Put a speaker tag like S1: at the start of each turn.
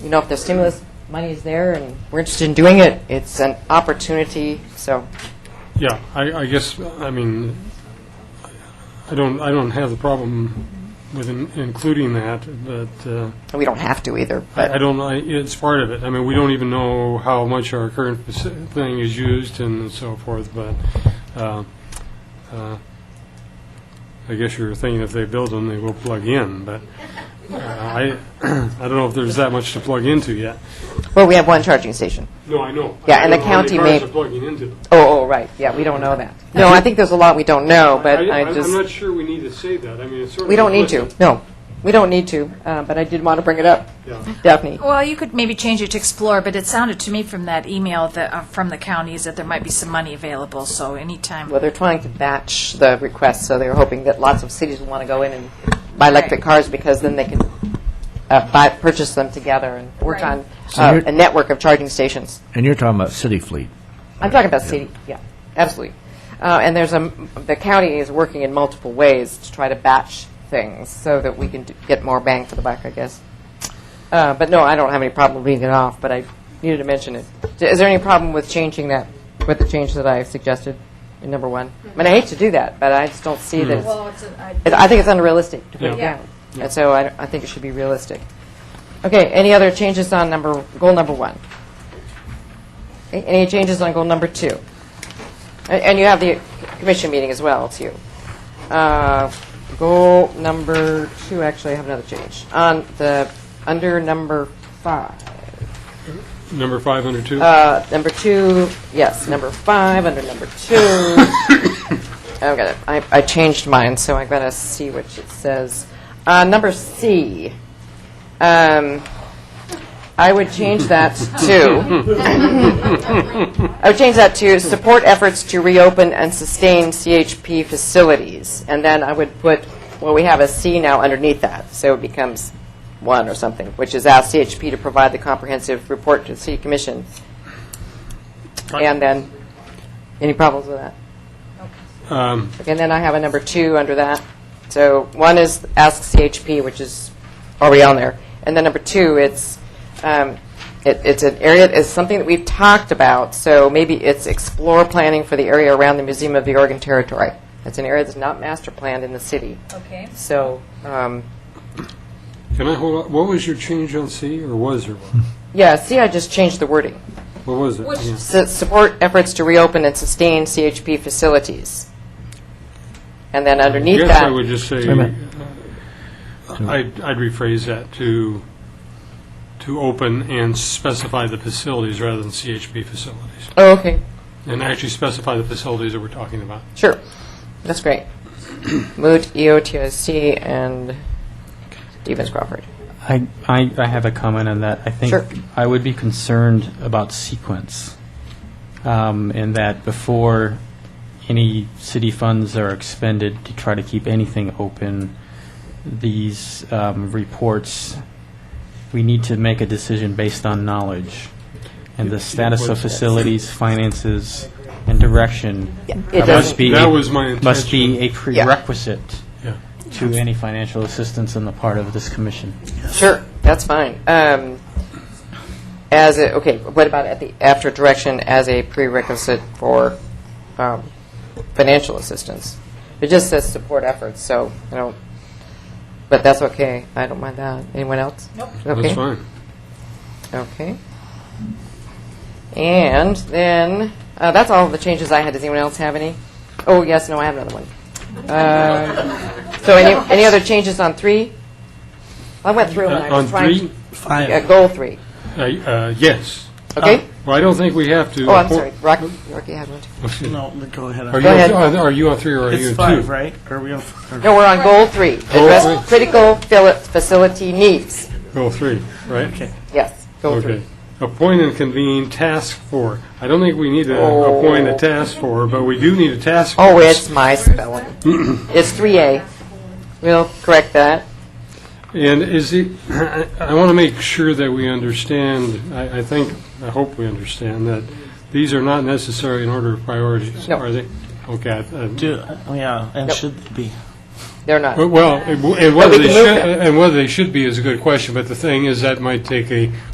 S1: you know, if the stimulus money is there and we're interested in doing it, it's an opportunity, so.
S2: Yeah, I, I guess, I mean, I don't, I don't have the problem with in- including that, but uh,
S1: We don't have to either,
S2: I I
S1: but
S2: don't, I- it's part of it. I mean, we don't even know how much our current faci- thing is used and so forth, but uh, uh, I guess you're thinking if they build them, they will plug in, but uh, I, I don't know if there's that much to plug into yet.
S1: well, we have one charging station.
S2: No, I know.
S1: Yeah, and the county
S2: I don't know how many
S1: may-
S2: cars are plugging into.
S1: Oh, oh, right, yeah, we don't know that. No, I think there's a lot we don't know, but I
S2: I'm not
S1: just,
S2: sure we need to say that. I mean, it's sort of.
S1: we don't need to,
S2: implicit.
S1: no. We don't need to, uh, but I did want to bring it up,
S2: Yeah.
S1: Daphne.
S3: Well, you could maybe change it to explore, but it sounded to me from that email that, uh, from the counties that there might be some money available, so anytime.
S1: Well, they're trying to batch the requests, so they're hoping that lots of cities will want to go in and buy electric
S3: Right.
S1: cars because then they can uh, buy, purchase them together and work
S3: Right.
S1: on
S4: So
S1: uh,
S4: you're-
S1: a network of charging stations.
S4: And you're talking about city fleet.
S1: I'm talking about city, yeah, absolutely. Uh, and there's a, the county is working in multiple ways to try to batch things so that we can do, get more bang for the buck, I guess. Uh, but no, I don't have any problem reading it off, but I needed to mention it. D- Is there any problem with changing that, with the change that I suggested in number one? I mean, I hate to do that, but I just don't see that it's, it- I think it's unrealistic to put it
S2: Yeah.
S1: down. And so I, I think it should be realistic. Okay, any other changes on number, goal number one? A- Any changes on goal number two? A- And you have the commission meeting as well, too. Uh, Goal number two, actually, I have another change. On the, under number five,
S2: Number 502?
S1: uh, number two, yes, number five, under number two. I've got it, I I changed mine, so I've got to see what it says. Uh, Number C, um, I would change that to, I would change that to support efforts to reopen and sustain CHP facilities. And then I would put, well, we have a C now underneath that, so it becomes one or something, which is ask CHP to provide the comprehensive report to the city commission. And then, any problems with that?
S2: Um,
S1: And then I have a number two under that. So one is ask CHP, which is already on there. And then number two, it's, um, it, it's an area, it's something that we've talked about. So maybe it's explore planning for the area around the Museum of the Oregon Territory. It's an area that's not master planned in the city.
S3: Okay.
S1: So, um,
S2: Can I hold, on- what was your change on C, or was there one?
S1: yeah, see, I just changed the wording.
S2: What was it? Yeah.
S1: Su- Support efforts to reopen and sustain CHP facilities. And then
S2: I
S1: underneath that.
S2: guess I would just say,
S4: a minute.
S2: uh, I'd I'd rephrase that to, to open and specify the facilities rather than CHP facilities,
S1: Oh, okay.
S2: and actually specify the facilities that we're talking about.
S1: Sure. That's great. Moot, E EOTIC, and Stevens Crawford.
S5: I, I, I have a comment on that. I think
S1: Sure.
S5: I would be concerned about sequence, um, in that before any city funds are expended to try to keep anything open, these um, reports, we need to make a decision based on knowledge and the status of facilities, finances, and direction.
S1: It
S5: must
S1: doesn't,
S5: be
S2: That
S5: a-
S2: was my
S5: Must be
S2: intention.
S5: a prerequisite
S2: Yeah.
S5: to any financial assistance on the part of this commission.
S1: sure, that's fine. Um, as a, okay, what about at the after direction as a prerequisite for um, financial assistance? It just says support efforts, so I don't. But that's okay. I don't mind that. Anyone else? Nope. Okay.
S2: That's fine.
S1: Okay. And then, uh, that's all the changes I had. Does anyone else have any? Oh, yes, no, I have another one. Uh, So any, any other changes on three? I went through and I
S2: Uh, On
S1: was trying.
S2: three,
S1: Yeah, goal three,
S2: I- uh, yes.
S1: okay?
S2: Well, I don't think we have to.
S1: Oh, I'm sorry, Rocky, Rocky had one. too.
S6: No, go ahead.
S2: Are
S1: Go
S2: you,
S1: ahead.
S2: on- are you on three or are you on two?
S6: It's five, right? Are we on? f-
S1: No, we're on goal three.
S2: Goal
S1: Address
S2: three.
S1: critical fili- facility needs.
S2: Go Oh, three, right?
S6: Okay.
S1: Yes, goal
S2: Okay.
S1: three.
S2: Appoint and convene task force. I don't think we need to
S1: Oh.
S2: appoint a task force, but we do need a task force.
S1: Oh, it's my spelling. It's three A. We'll correct that.
S2: And is it, I I want to make sure that we understand, I I think, I hope we understand, that these are not necessary in order of priorities,
S1: No.
S2: are they? Okay. I- I-
S6: Do, oh, yeah, and
S1: Yep.
S6: should be.
S1: They're not.
S2: Well, and
S1: we
S2: whether they
S1: can move
S2: should,
S1: them.
S2: and whether they should be is a good question, but the thing is, that might take a